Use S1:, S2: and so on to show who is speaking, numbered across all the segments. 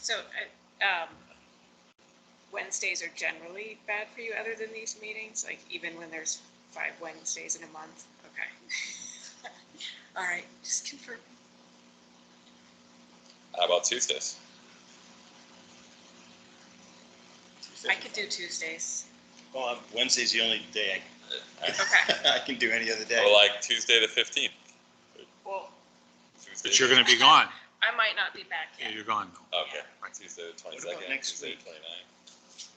S1: So, uh, um, Wednesdays are generally bad for you other than these meetings, like even when there's five Wednesdays in a month? Okay. All right, just confirm.
S2: How about Tuesdays?
S1: I could do Tuesdays.
S3: Well, I'm- Wednesday's the only day I, I can do any other
S2: Or
S3: day.
S2: like Tuesday the fifteenth?
S1: Well,
S4: But you're gonna be gone.
S1: I might not be back
S4: Yeah,
S1: yet.
S4: You're gone though.
S2: Okay, Tuesday the twenty-second,
S3: next
S2: Tuesday the
S3: week?
S2: twenty-ninth.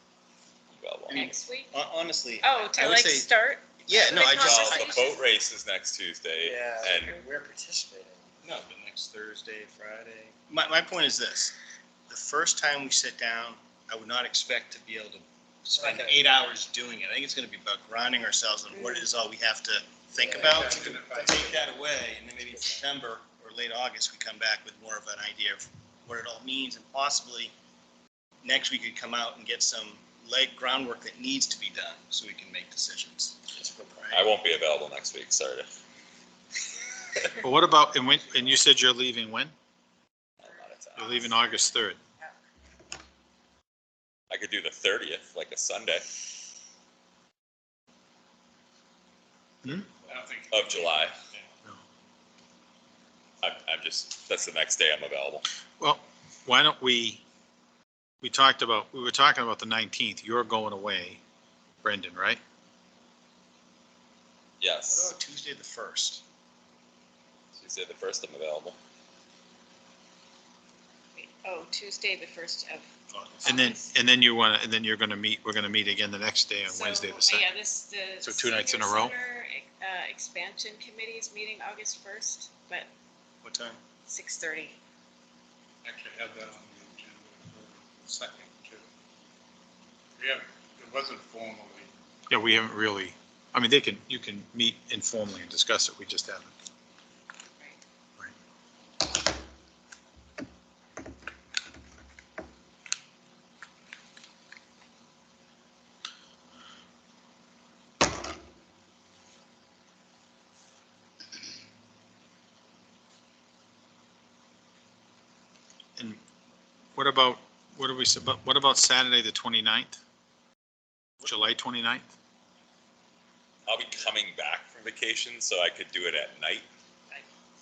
S2: You got long.
S3: mean-
S1: Next week?
S3: Hon- Honestly.
S1: Oh, to
S3: I would
S1: like
S3: say-
S1: start?
S3: Yeah, no, I
S1: Like
S3: just.
S2: Well,
S1: conversation.
S2: the boat race is next Tuesday and,
S3: we're participating. No, but next Thursday, Friday. My, my point is this, the first time we sit down, I would not expect to be able to spend eight hours doing it. I think it's gonna be about grounding ourselves on what it is all we have to think about. Take that away, and then maybe in September or late August, we come back with more of an idea of what it all means, and possibly next we could come out and get some leg groundwork that needs to be done, so we can make decisions.
S2: I won't be available next week, sorry.
S4: But what about, and when, and you said you're leaving when?
S2: I'm out of
S4: You're
S2: town.
S4: leaving August third.
S2: I could do the thirtieth, like a Sunday of July.
S4: Hmm? No.
S2: I'm, I'm just, that's the next day I'm available.
S4: Well, why don't we, we talked about, we were talking about the nineteenth. You're going away, Brendan,
S3: What
S4: right?
S2: Yes,
S3: about Tuesday the first?
S2: Tuesday the first I'm available.
S1: Oh, Tuesday, the first of.
S4: And then, and then you wanna, and then you're gonna meet, we're gonna meet again the next day on
S1: So,
S4: Wednesday the second.
S1: Yeah, this, the.
S4: So two nights in a
S1: senior
S4: row?
S1: center, Uh, expansion committee is meeting August first, but
S3: What time?
S1: six thirty.
S5: actually had that on the agenda for the second too. Yeah, it wasn't formally,
S4: Yeah, we haven't really, I mean, they can, you can meet informally and discuss it. We just haven't. And what about, what are we, sub- what about Saturday, the 29th? July 29th?
S2: I'll be coming back from vacation, so I could do it at night.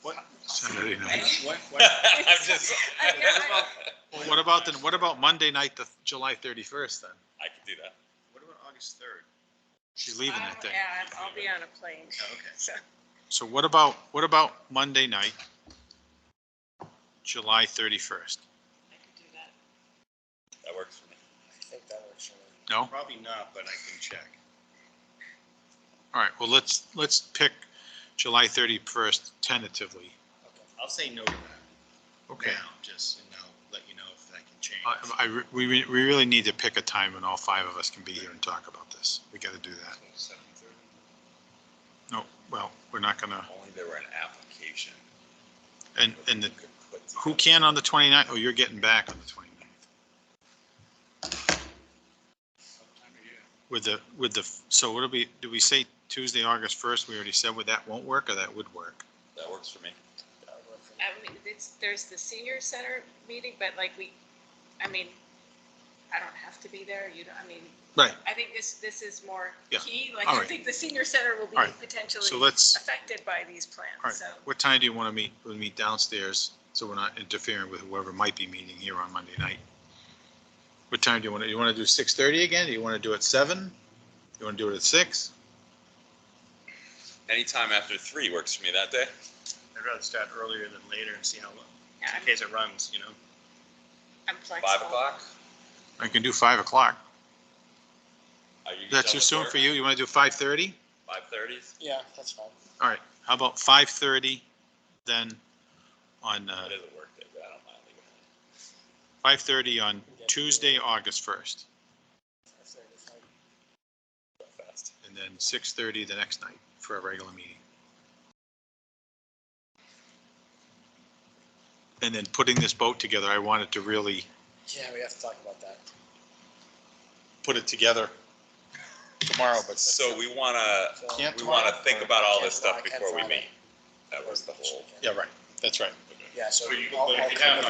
S3: What,
S4: Saturday night.
S3: what, what?
S2: I'm just.
S1: I know,
S4: What about then, what about Monday night, the July 31st then?
S2: I could do that.
S3: What about August third?
S4: She's leaving
S1: Um,
S4: that day.
S1: Yeah, I'm- I'll be on a plane,
S3: Oh, okay.
S1: so.
S4: So what about, what about Monday night? July 31st?
S1: I could do that.
S2: That works for me.
S4: No?
S3: Probably not, but I can check.
S4: All right, well, let's, let's pick July 31st tentatively.
S3: I'll say no to that
S4: Okay.
S3: now, just, and I'll let you know if that can change.
S4: I, I, re- we, re- we really need to pick a time when all five of us can be here and talk about this. We gotta do that.
S3: Seven thirty.
S4: No, well, we're not gonna,
S2: Only there were an application.
S4: and, and the,
S2: could put
S4: who
S2: together.
S4: can on the 29th? Oh, you're getting back on the 29th.
S5: sometime a year.
S4: With the, with the, so what do we, do we say Tuesday, August 1st? We already said would that won't work or that would work?
S2: That works for me.
S1: I mean, it's, there's the senior center meeting, but like we, I mean, I don't have to be there, you know, I mean,
S4: Right.
S1: I think this, this is more
S4: Yeah.
S1: key, like,
S4: All
S1: I
S4: right.
S1: think the senior center will
S4: All
S1: be
S4: right. So
S1: potentially
S4: let's,
S1: affected by these
S4: all
S1: plans,
S4: right,
S1: so.
S4: what time do you want to meet? We'll meet downstairs, so we're not interfering with whoever might be meeting here on Monday night. What time do you want to, you want to do 6:30 again? Do you want to do it 7? You want to do it at 6?
S2: Anytime after three works for me that day.
S3: I'd rather start earlier than later and see how, long-
S1: yeah,
S3: in case it runs, you know?
S1: I'm, I'm flexible.
S2: Five o'clock?
S4: I can do 5 o'clock.
S2: Are you
S4: That's too
S2: done
S4: soon
S2: with
S4: for you? You want to do 5:30?
S2: Five thirty?
S6: Yeah, that's fine.
S4: All right, how about 5:30 then on, uh,
S2: That is a work day, but I don't mind leaving.
S4: 5:30 on Tuesday, August 1st?
S6: That's it, it's fine.
S2: it that fast.
S4: and then six thirty the next night for a regular meeting. And then putting this boat together, I wanted to really
S6: Yeah, we have to talk about that.
S4: put it together tomorrow, but
S2: So we wanna,
S6: So-
S4: Can't
S2: we wanna think about all this
S6: Can't
S2: stuff
S6: tomorrow, can't
S2: before we
S6: Friday.
S2: meet. That was the whole.
S4: yeah, right, that's right.
S6: Yeah, so.
S5: But you-
S6: I'll-
S5: but if
S6: I'll
S5: you
S6: come
S5: have
S6: up